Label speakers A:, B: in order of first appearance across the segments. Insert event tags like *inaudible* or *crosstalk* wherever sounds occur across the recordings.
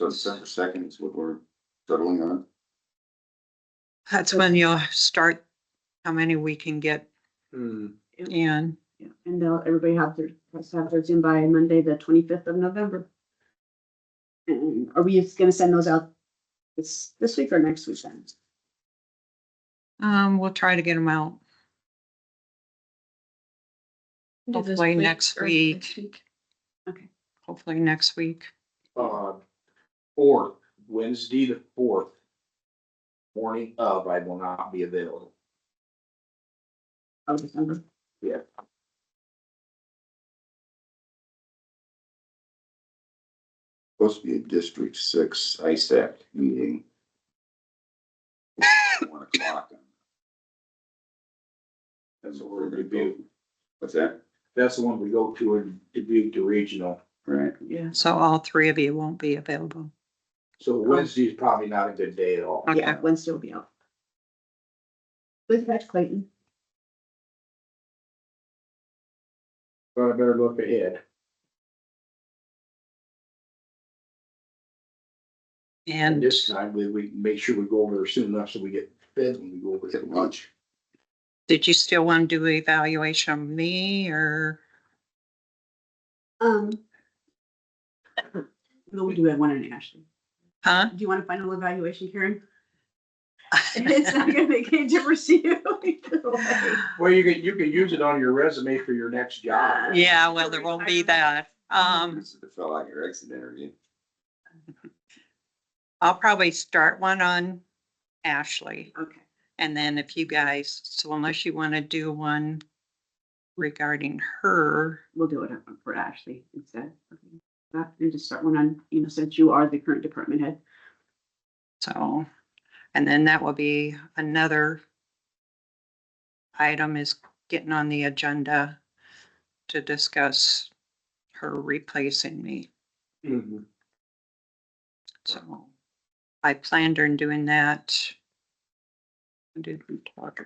A: So December second is what we're settling on.
B: That's when you'll start how many we can get
C: Hmm,
B: in.
D: Yeah, And they'll, everybody have their, has to have theirs in by Monday, the twenty-fifth of November. And are we just gonna send those out this, this week or next weekend?
B: Um, we'll try to get them out.
E: Do this
B: Hopefully next
E: or
B: week.
E: next week.
B: hopefully next week.
C: uh, fourth, Wednesday the fourth. Morning of, I will not be available.
D: Oh, December.
C: Yeah.
A: Supposed to be a District Six ISAC meeting. One o'clock. That's what we're gonna do. What's that?
C: That's the one we go to in Dubuque to regional.
A: Right,
D: Yeah.
B: So all three of you won't be available.
C: So Wednesday is probably not a good day at all.
D: Yeah, Wednesday will be out. With that, Clayton.
C: But I better look ahead. And
B: And
C: this time we, we can make sure we go over there soon enough so we get fed when we go over
A: we'll
C: there.
A: get lunch.
B: did you still want to do evaluation of me
E: *laughs*
B: or?
D: Um. *coughs* No, we do have one in Ashley.
B: Huh?
D: Do you want a final evaluation, Karen? *laughs* It's not gonna make any difference to you either way.
C: Well, you can, you can use it on your resume for your next job.
B: Yeah, well, there won't be that. Um,
A: This is the fill out your exit interview.
B: I'll probably start one on Ashley.
D: Okay.
B: And then if you guys, so unless you want to do one regarding her,
D: we'll do it for Ashley instead. That, and just start one on, you know, since you are the current department head.
B: so. And then that will be another item is getting on the agenda to discuss her replacing me.
C: Mhm.
B: So I planned on doing that. I Didn't talk.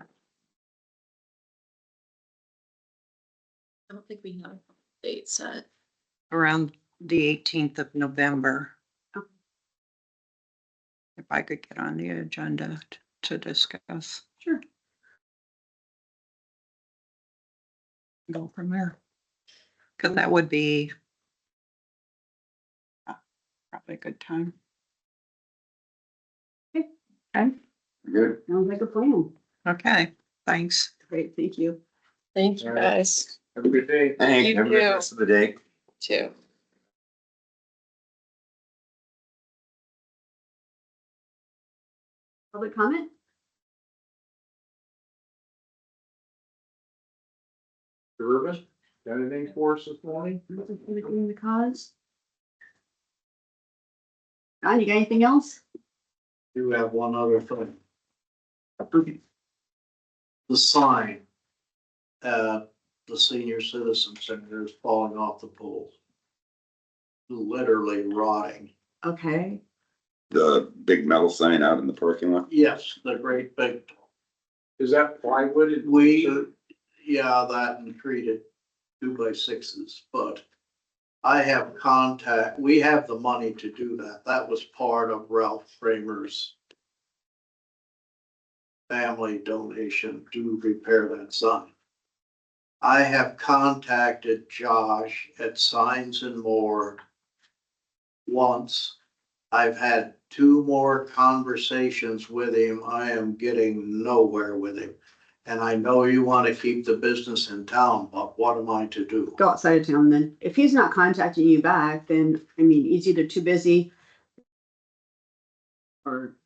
E: I don't think we have a date set.
B: around the eighteenth of November.
D: Okay.
B: If I could get on the agenda t- to discuss,
D: Sure.
B: go from there. Cause that would be uh, probably a good time.
A: Good.
D: Sounds like a plan.
B: Okay, thanks.
D: Great, thank you.
E: Thank
C: you,
E: you
C: Alright.
E: guys
C: Have a good day.
A: Thank
E: You
A: you. Have a good
E: too.
A: rest of the day.
E: too.
D: Public comment?
C: Service, got anything for us this morning?
D: Anything the cause? Don, you got anything else?
F: do have one other thing,
D: Okay.
F: the sign. Uh, the senior citizen center is falling off the poles. Literally rotting.
D: Okay,
A: The big metal sign out in the parking lot.
F: Yes, the great big,
C: Is that plywood? and-
F: we, yeah, that and treated two by sixes, but. I have contact, we have the money to do that. That was part of Ralph Framer's. Family donation to repair that sign. I have contacted Josh at Signs and More. Once, I've had two more conversations with him. I am getting nowhere with him. And I know you want to keep the business in town, but what am I to do?
D: go outside of town then. If he's not contacting you back, then, I mean, he's either too busy or,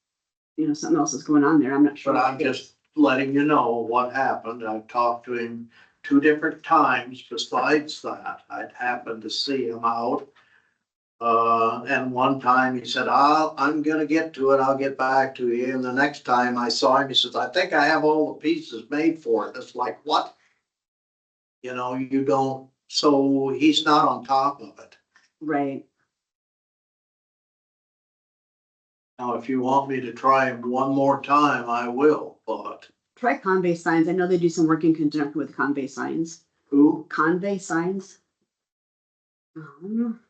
D: you know, something else is going on there. I'm not sure.
F: But I'm just letting you know what happened. I've talked to him two different times besides that. I'd happened to see him out. Uh, and one time he said, I'll, I'm gonna get to it. I'll get back to you. And the next time I saw him, he says, I think I have all the pieces made for it. It's like, what? You know, you don't, so he's not on top of it.
D: Right,
F: Now, if you want me to try him one more time, I will, but
D: try Convey Signs. I know they do some work in conjunction with Convey Signs.
F: who?
D: Convey signs. Um,